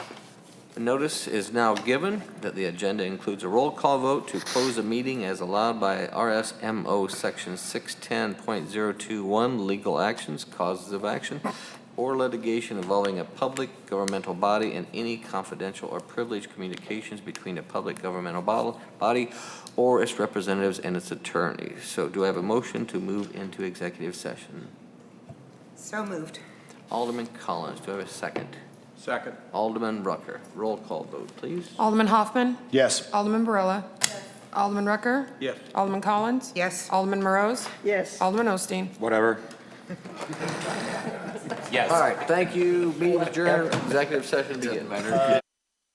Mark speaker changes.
Speaker 1: Notice is now given that the agenda includes a roll call vote to close a meeting as allowed by RSMO Section 610.021, legal actions, causes of action, or litigation involving a public governmental body and any confidential or privileged communications between a public governmental bod- body or its representatives and its attorney. So do I have a motion to move into executive session?
Speaker 2: So moved.
Speaker 1: Alderman Collins, do I have a second?
Speaker 3: Second.
Speaker 1: Alderman Rucker, roll call vote, please.
Speaker 4: Alderman Hoffman?
Speaker 3: Yes.
Speaker 4: Alderman Barilla? Alderman Rucker?
Speaker 3: Yes.
Speaker 4: Alderman Collins?
Speaker 2: Yes.
Speaker 4: Alderman Morose?
Speaker 2: Yes.
Speaker 4: Alderman Osteen?
Speaker 3: Whatever.
Speaker 1: All right, thank you. Meeting adjourned, executive session begins.